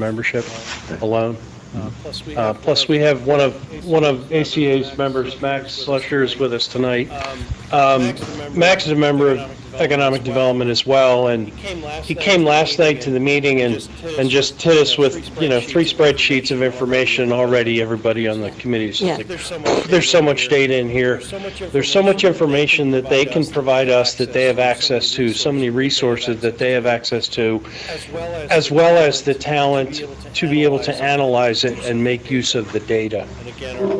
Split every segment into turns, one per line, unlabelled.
membership alone.
Plus, we
Uh,
have.
Plus, we have one of, one of ACA's members, Max Slusher, is with us tonight. Um, Max is a member of Economic Development as well, and he came last night to the meeting and, and just hit us with, you know, three spreadsheets of information already, everybody on the committee. is
Yeah.
like,
There's so much.
There's so much data in here.
There's so much
There's so much information that they can provide us, that they have access to, so many resources that they have access to,
As well as.
as well as the talent to be able to analyze it and make use of the data.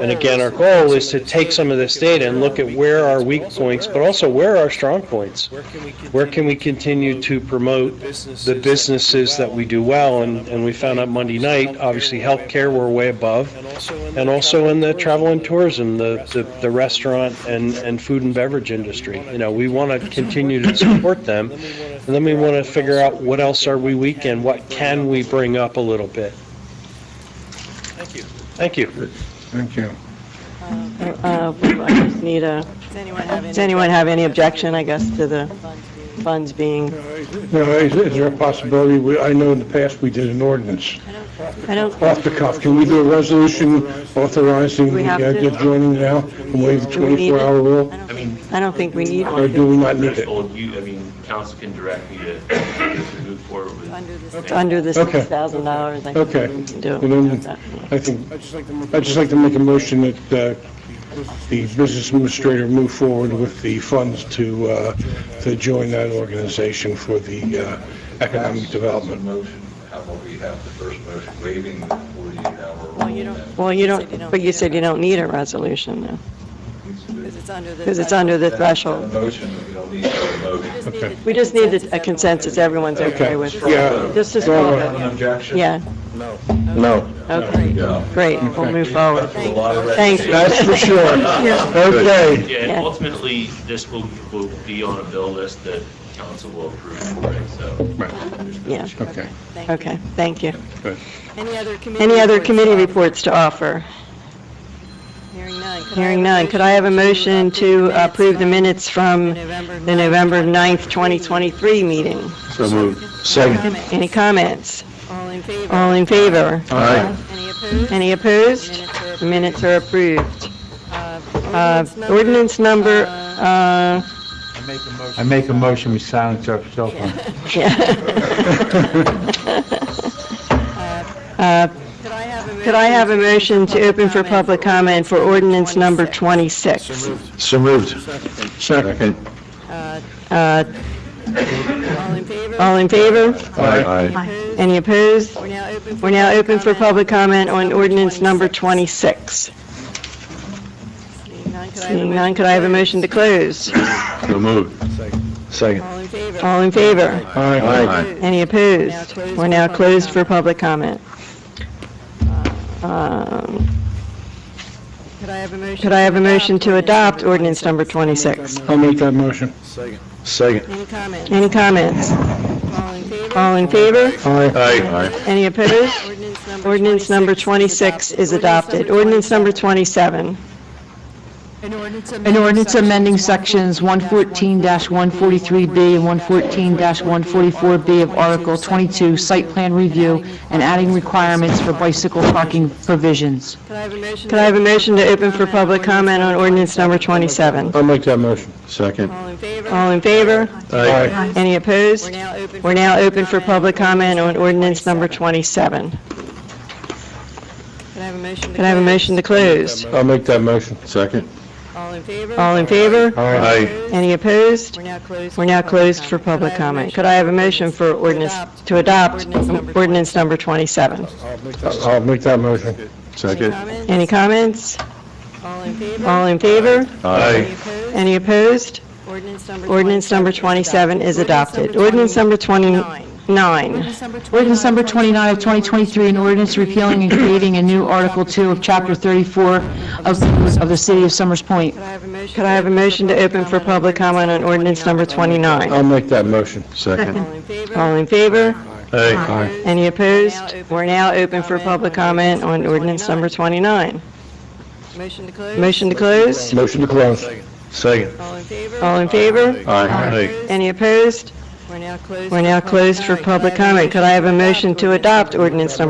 And again, our goal is to take some of this data and look at where are weak points, but also where are strong points?
Where can we?
Where can we continue to promote the businesses that we do well? And, and we found out Monday night, obviously healthcare, we're way above.
And also in the.
And also in the travel and
tourism.
tourism, the, the- the restaurant and, and food and beverage industry. You know, we want to continue to support them. And then we want to figure out what else are we weak in? What can we bring up a little bit?
Thank you.
Thank you.
Thank you.
Uh, I just need a,
Does anyone have any?
does anyone have any objection, I guess, to the funds being,
Now, is is there a possibility, we- I know in the past we did an ordinance,
I don't,
off the cuff, can we do a resolution authorizing
We
the
have
uh,
to.
the joining now and waive the
Do we need it?
24-hour rule?
I mean,
I don't think we need
Or
one.
do we not need it?
threshold, you, I mean, council can direct me to to move forward with.
Under the
It's Under the
Okay.
$6,000, I
Okay.
think we can do.
And then-
that.
I think, I'd just like to make a motion that uh, the business administrator move forward with the funds to, uh, to join that organization for the uh, economic development.
Motion, how about we have the first motion waiving the 48-hour rule?
Well, you don't-
Well, you
Said you
don't,
don't
but you
need
said
it.
you don't need a resolution, though,
Because it's under the.
because it's under the threshold.
Motion, we don't need a
We
motion.
just need
We just need a- a consensus, everyone's okay with.
Okay. Yeah.
Just as
Go
well,
on.
Objection?
yeah,
No.
okay,
Yeah.
great, we'll move forward.
There's a lot of red
Thanks.
tape.
That's for sure. Okay.
Yeah, and
Yeah.
ultimately, this will, will be on a bill list that council will approve, right, so. there's no
Yeah.
issue.
Okay.
Thank you.
Okay, thank you.
Any other committee?
Any other
reports?
committee reports to offer?
Hearing none. Could I
Hearing
have a
none, could I have a motion to approve the
from
minutes from the November 9th, 2023 meeting?
So moved.
Comments?
Any comments?
All in favor?
All in favor?
Aye.
Any opposed?
Any
Minutes
opposed? Minutes
are approved.
are approved. Uh,
Uh,
Ordinance number,
uh,
uh,
I make a motion, we silence our cell phone.
uh,
Could I have a motion?
could I have a motion to open for public comment for ordinance number 26?
So moved. Second.
Uh,
Uh,
All in favor?
All in favor?
Aye.
Opposed?
Any opposed?
We're now open for.
We're now open for
comment.
public comment on ordinance number 26.
Seeing none, could I have a
Seeing none,
motion
could I have a
to close?
motion to close?
So moved. Second.
All in favor?
All in favor?
Aye.
Opposed?
Any opposed? We're
closed for
now
public
closed for
comment.
public comment. Um,
Could I have a motion?
Could I have a motion to adopt ordinance number
number
26?
I'll make that motion. Second.
Any comments?
Any comments?
All in favor?
All in favor?
Aye. Aye.
Any opposed?
Ordinance number
Ordinance number
26.
26 is adopted. Ordinance number 27.
An ordinance amending sections 114-143B and 114-144B of Article 22, Site Plan Review, and adding requirements for bicycle parking provisions.
Could I have a motion?
Could I have a motion to open for public comment on ordinance number 27?
I'll make that motion. Second.
All in favor?
All in favor?
Aye.
Any
We're
opposed?
now open.
We're now open for public comment on ordinance number 27.
Could I have a motion?
Could I have a motion to close?
I'll make that motion. Second.
All in favor?
All in favor?
Aye.
Any opposed?
We're now closed.
We're now closed for public comment. Could I have a motion for ordinance, to adopt ordinance number 27?
I'll make that motion.
Any
Second.
comments?
Any comments?
All in favor?
All in favor?
Any
Aye.
opposed?
Any opposed?
Ordinance number.
Ordinance number 27 is adopted. Ordinance number 29.
Ordinance number 29.
Ordinance number 29 of 2023, an ordinance repealing and creating a new Article 2 of Chapter 34 of of the City of Summers Point.
Could I have a motion?
Could I have a motion to open for public comment on ordinance number 29?
I'll make that motion. Second.
All in favor?
All in favor?
Aye.
Any opposed? We're now open for public comment on ordinance number 29.
Motion to close?
Motion to close?
Motion to close. Second.
All in favor?
All in favor?
Aye.
Any opposed?
We're now closed.
We're now closed for public comment. Could I have a motion to adopt ordinance number